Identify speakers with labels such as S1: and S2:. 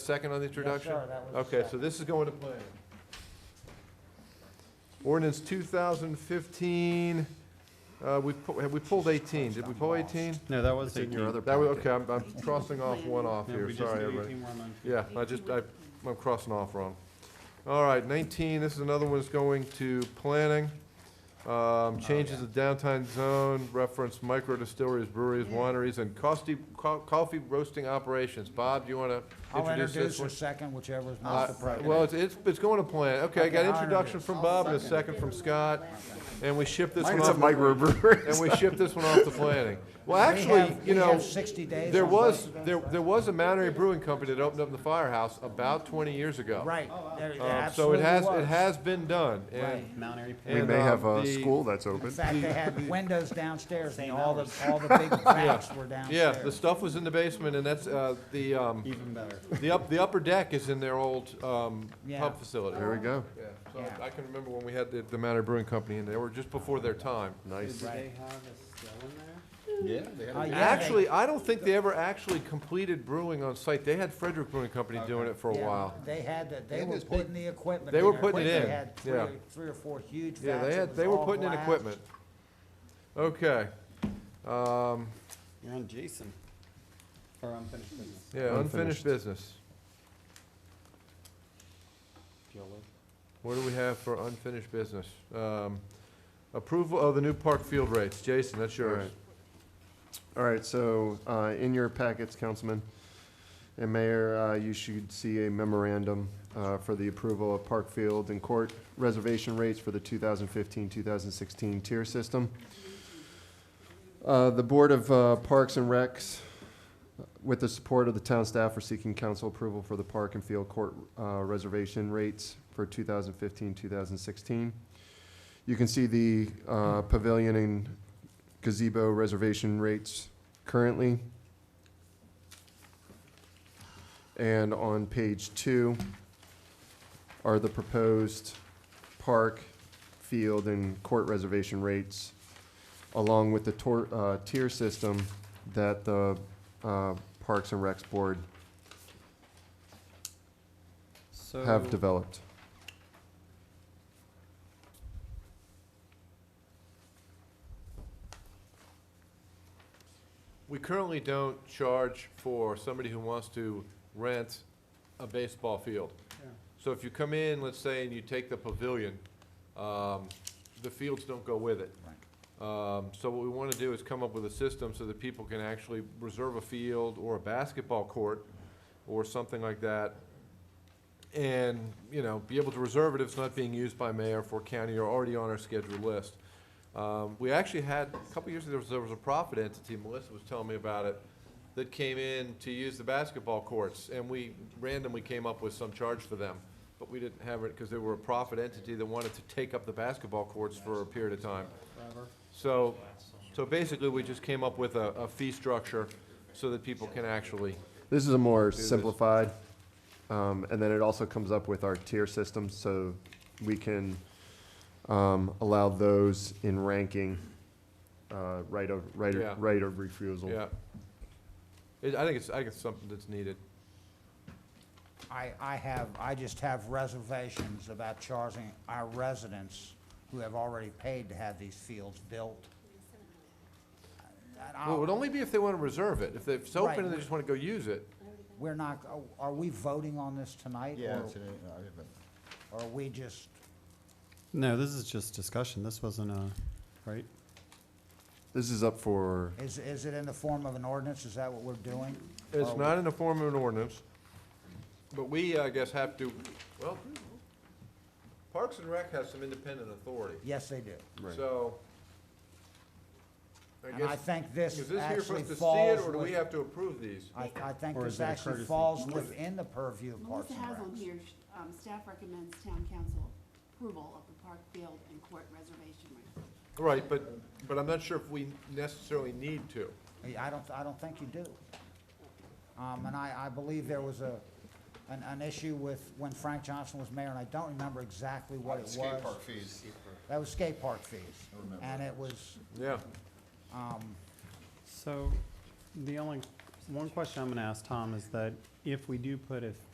S1: Second on the introduction?
S2: sir, that was the
S1: Okay, so
S2: second.
S1: this is going to plan. Ordinance 2015, uh, we, pu- have we pulled 18? Did we pull 18?
S3: No, that was 18.
S1: That was, okay, I'm, I'm crossing off one off
S3: No,
S1: here,
S3: we just
S1: sorry,
S3: did
S1: everybody.
S3: 18 more months.
S1: Yeah, I just, I, I'm crossing off wrong. All right, 19, this is another one that's going to planning.
S3: Oh,
S1: Um, Changes the downtown zone, reference micro distilleries, breweries, wineries, and costi- co- coffee roasting operations. Bob, do you want to
S2: I'll
S1: introduce
S2: introduce
S1: this one?
S2: or second, whichever is most
S1: Uh,
S2: appropriate.
S1: Well, it's, it's it's going to plan. Okay, I got
S2: Okay, I'll
S1: introduction
S2: introduce.
S1: from Bob and a second from Scott, and we ship this one
S4: Mine's a
S1: off,
S4: microbrewery.
S1: and we ship this one off to planning. Well,
S2: We
S1: actually,
S2: have-
S1: you
S2: we
S1: know,
S2: have 60 days
S1: there
S2: on
S1: was,
S2: both of
S1: there,
S2: those, right?
S1: there was a Mountaineer Brewing Company that opened up in the firehouse about twenty years ago.
S2: Right, there, there
S1: Um, So it
S2: absolutely
S1: has, it
S2: was.
S1: has been done,
S2: Right.
S1: and,
S3: Mount Airy Pig.
S4: We
S1: And,
S4: may
S1: um,
S4: have a
S1: the-
S4: school that's
S2: In
S4: open.
S2: fact, they had windows downstairs, and all the, all the big vats were
S1: yeah,
S2: downstairs.
S1: the stuff was in the basement, and that's, uh, the, um,
S3: even better.
S1: the up, the upper deck is in their old, um,
S2: Yeah.
S1: pub facility.
S4: There we go.
S1: Yeah, so
S2: Yeah.
S1: I can remember when we had the, the Mountaineer Brewing Company in there, or just before their time.
S3: Did
S4: Nice.
S3: they have a still in there?
S5: Yeah, they had
S2: Uh, yeah, they-
S1: Actually, I don't think they ever actually completed brewing on site. They had Frederick Brewing Company doing it for a
S2: yeah,
S1: while.
S2: They had, the- they
S5: had
S2: were
S5: this big-
S2: putting the equipment.
S1: They
S2: in.
S1: were putting it
S2: They
S1: in,
S2: had three
S1: yeah.
S2: or- Three or four huge vats.
S1: Yeah, they
S2: It
S1: had,
S2: was
S1: they were
S2: all
S1: putting in
S2: glass.
S1: equipment. Okay. Um,
S3: You're on Jason for unfinished business.
S1: yeah, unfinished
S4: Unfinished.
S1: business.
S3: if you'll look.
S1: What do we have for unfinished business? Um, approval of the new park field rates. Jason, that's
S4: All
S1: yours.
S4: right. All right, so uh, in your packets, Councilman and Mayor, uh, you should see a memorandum uh, for the approval of Park Field and Court reservation rates for the 2015-2016 tier system. Uh, The Board of uh, Parks and Recs, with the support of the town staff, are seeking council approval for the Park and Field Court uh, reservation rates for 2015-2016. You can see the uh, pavilion and gazebo reservation rates currently. And on page two are the proposed park, field, and court reservation rates, along with the tor, uh, tier system that the, uh, Parks and Recs Board
S3: So
S4: have developed.
S1: We currently don't charge for somebody who wants to rent a baseball field.
S3: Yeah.
S1: So if you come in, let's say, and you take the pavilion, um, the fields don't go with it. Um, so what we wanna do is come up with a system so that people can actually reserve a field or a basketball court or something like that. And, you know, be able to reserve it if it's not being used by mayor for county or already on our scheduled list. Um, we actually had, a couple years ago, there was, there was a profit entity, Melissa was telling me about it, that came in to use the basketball courts, and we randomly came up with some charge for them. But we didn't have it, because they were a profit entity that wanted to take up the basketball courts for a period of time.
S3: Forever.
S1: So, so basically, we just came up with a, a fee structure so that people can actually,
S4: This is a more
S1: this.
S4: simplified, um, and then it also comes up with our tier system, so we can, um, allow those in ranking, uh, right of, right,
S1: Yeah.
S4: of- right of refusal.
S1: yeah. It, I think it's, I think it's something that's needed.
S2: I, I have, I just have reservations about charging our residents who have already paid to have these fields built. um, And
S1: Well, it
S2: I'll-
S1: would only be if they wanna reserve it. If they- if it's open and
S2: Right.
S1: they just wanna go use it,
S2: We're not, are we voting on this tonight?
S5: Yeah,
S2: or-
S5: today, no, I haven't.
S2: Or are we just,
S3: No, this is just discussion. This wasn't a, right?
S4: This is up for,
S2: is, is it in the form of an ordinance? Is that what we're doing?
S1: It's
S2: Or-
S1: not in the form of an ordinance, but we, I guess, have to, well, Parks and Rec has some independent authority,
S2: Yes, they do.
S1: so. I
S2: And I
S1: guess,
S2: think this
S1: is this here for
S2: actually
S1: us to see it,
S2: falls
S1: or do we
S2: with,
S1: have to approve these?
S2: I, I think
S3: Or
S2: this
S3: is it a
S2: actually
S3: courtesy?
S2: falls
S6: Melissa-
S2: within the purview of Parks
S6: Melissa
S2: and
S6: has on
S2: Recs.
S6: here, sh- um, staff recommends town council approval of the park field and court reservation rate.
S1: Right, but, but I'm not sure if we necessarily need to.
S2: Yeah, I don't, I don't think you do. Um, and I, I believe there was a, an, an issue with when Frank Johnson was mayor, and I don't remember exactly what it was.
S5: Skate park fees.
S2: That was skate park fees.
S5: remember.
S2: And it was,
S1: Yeah.
S2: um,
S3: So the only, one question I'm going to ask Tom is that if we do put a